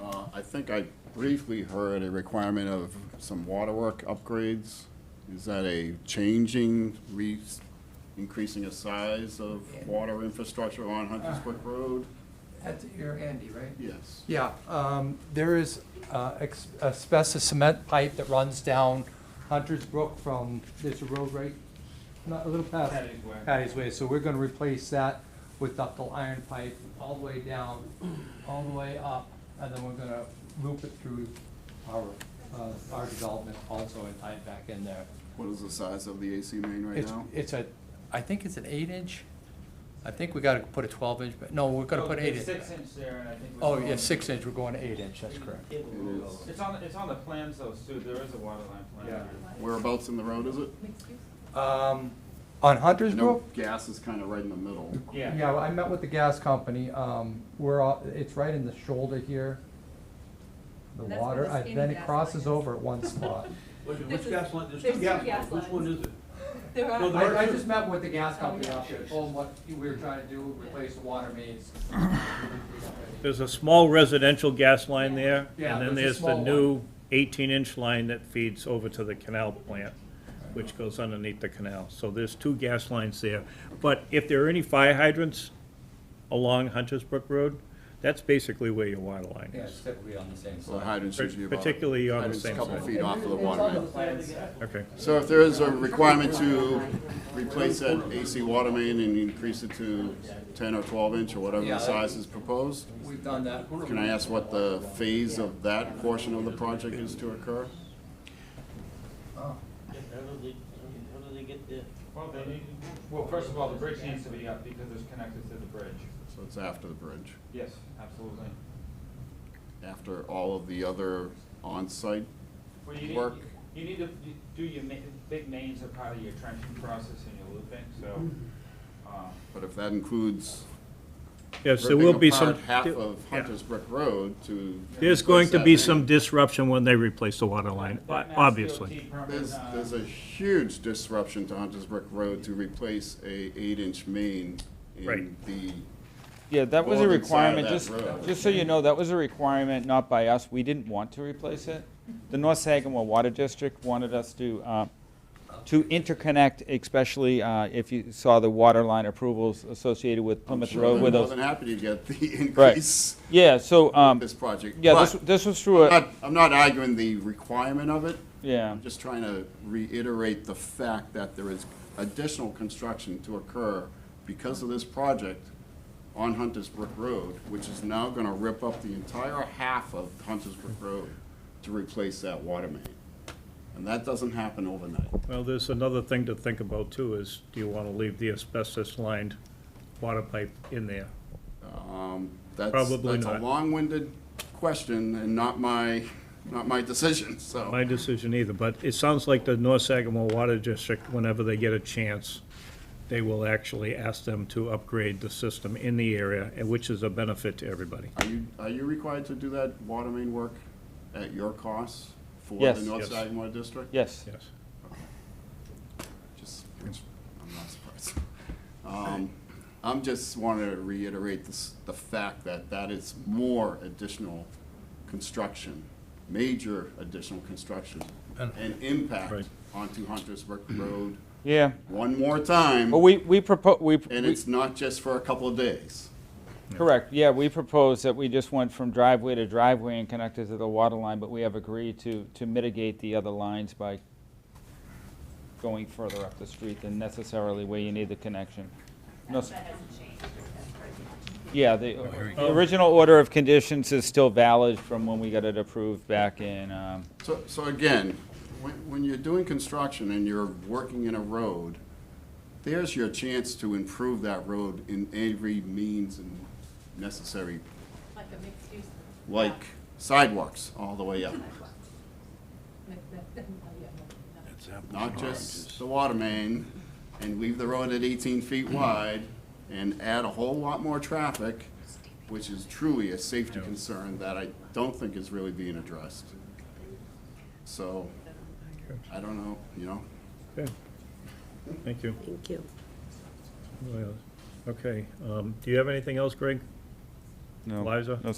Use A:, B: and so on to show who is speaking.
A: Uh, I think I briefly heard a requirement of some waterwork upgrades. Is that a changing, re, increasing the size of water infrastructure on
B: Ah.
A: Hunter's Brook Road?
C: That's your Andy, right?
A: Yes.
B: Yeah, um, there is, uh, ex- asbestos cement pipe that runs down Hunter's Brook from, there's a road right, not a little past.
D: Patty's Way.
B: Patty's Way, so we're gonna replace that with ductile iron pipe all the way down, all the way up, and then we're gonna loop it through our, uh, our development also and tie it back in there.
A: What is the size of the AC main right
B: It's,
A: now?
B: it's a, I think it's an eight inch, I think we gotta put a twelve inch, but, no, we're gonna
D: Oh,
B: put eight
D: there's
B: inch.
D: Six inch there, and I think. we're
B: Oh, yeah,
D: going-
B: six inch, we're going to eight inch, that's correct.
E: It will roll
A: is.
E: over.
D: It's on, the- it's on the plans though, Sue, there is a water line plan.
B: Yeah.
A: Whereabouts in the road is it?
B: Um, on
A: I
B: Hunter's
A: know
B: Brook?
A: gas is kind of right in the middle.
D: Yeah.
B: Yeah, well, I met with the gas company, um, we're, all- it's right in the shoulder here. The
F: That's where
B: water,
F: the
B: I-
F: skinny
B: then it
F: gas
B: crosses
F: line is.
B: over at one spot.
E: Which,
F: This
E: which
F: is-
E: gas line,
F: there's
E: there's
F: two
E: two gas
F: gas
E: lines, which one
F: lines.
E: is it?
F: There
E: No,
F: are,
E: there
B: I, I
E: are
B: just
E: two.
B: met with the gas
F: Oh,
B: company
F: yeah.
B: out there, told them what we were trying to do, replace the water mains.
G: There's a small residential gas line there,
B: Yeah,
G: and then
B: there's
G: there's
B: a
G: the
B: small
G: new eighteen-inch line that feeds over to the canal plant, which goes underneath the canal. So there's two gas lines there. But if there are any fire hydrants along Hunter's Brook Road, that's basically where your water line
E: Yeah,
G: is,
E: it's typically on the same
A: So the
E: side.
A: hydrants usually about.
G: particularly on the
A: hydrants a
G: same
A: Couple
G: side.
A: feet off of the water main.
G: okay?
A: So if there is a requirement to replace that AC water main and increase it to ten or twelve inch or whatever
B: Yeah.
A: the size is proposed,
B: We've done that.
A: can I ask what the phase of that portion of the project is to occur?
E: How do they, how do they get the?
D: Well, they need, well, first of all, the bridge needs to be up because it's connected to the bridge.
A: So it's after the bridge,
D: Yes, absolutely.
A: after all of the other on-site.
D: Well, you
A: Work.
D: need, you need to do your ma- big mains are part of your trenching process and your looping, so, uh,
A: But if that includes
G: Yes, there will
A: ripping
G: be some.
A: apart half
G: there-
A: of
G: yeah.
A: Hunter's Brook Road to. replace
G: There's going to
A: that
G: be
A: main.
G: some disruption when they replace the water line,
D: that Mass DOT
G: obviously.
D: permit,
A: There's,
D: uh,
A: there's a huge disruption to Hunter's Brook Road to replace a eight-inch main in
G: Right.
A: the,
D: Yeah, that was a
A: northern side of
D: requirement,
A: that
D: just,
A: road.
D: just so you know, that was a requirement, not by us, we didn't want to replace it. The North Sagamore Water District wanted us to, uh, to interconnect, especially, uh, if you saw the water line approvals associated with Plymouth
A: sure,
D: Road
A: they're
D: with
A: more
D: those.
A: than happy to get the increase
D: Yeah, so,
A: of
D: um,
A: this project.
D: yeah,
A: But
D: this, this was
A: I'm
D: through a,
A: not- I'm not arguing the requirement of it,
D: yeah,
A: I'm just trying to reiterate the fact that there is additional construction to occur because of this project on Hunter's Brook Road, which is now gonna rip up the entire half of Hunter's Brook Road to replace that water main. And that doesn't happen overnight.
G: Well, there's another thing to think about too, is do you want to leave the asbestos-lined water pipe in there?
A: Um, That's,
G: Probably
A: that's a
G: not.
A: long-winded question and not my, not my decision, so.
G: My decision either, but it sounds like the North Sagamore Water District, whenever they get a chance, they will actually ask them to upgrade the system in the area, and which is a benefit to everybody.
A: Are you, are you required to do that water main work at your cost for the
D: Yes.
A: North
G: Yes.
A: Sagamore District?
D: yes.
G: Yes.
A: Just, I'm not surprised. Um, I'm just wanting to reiterate this, the fact that that is more additional construction, major additional construction and impact
G: Right.
A: onto Hunter's Brook Road
D: Yeah,
A: one more time.
D: but we, we propose, we.
A: And
D: we-
A: it's not just for a couple of days.
D: Correct, yeah, we proposed that we just went from driveway to driveway and connected to the water line, but we have agreed to, to mitigate the other lines by going further up the street than necessarily where you need the connection. No, s- Yeah, the, the original order of conditions is still valid from when we got it approved back in, um,
A: So, so again, when, when you're doing construction and you're working in a road, there's your chance to improve that road in every means and necessary,
F: Like a mixed use.
A: like sidewalks all the way up. Not just the water main and leave the road at eighteen feet wide and add a whole lot more traffic, which is truly a safety concern that I don't think is really being addressed. So, I don't know, you know,
G: Okay. Thank you.
H: Thank you.
G: Well, Okay, um, do you have anything else, Greg?
D: no.
G: Liza?
D: no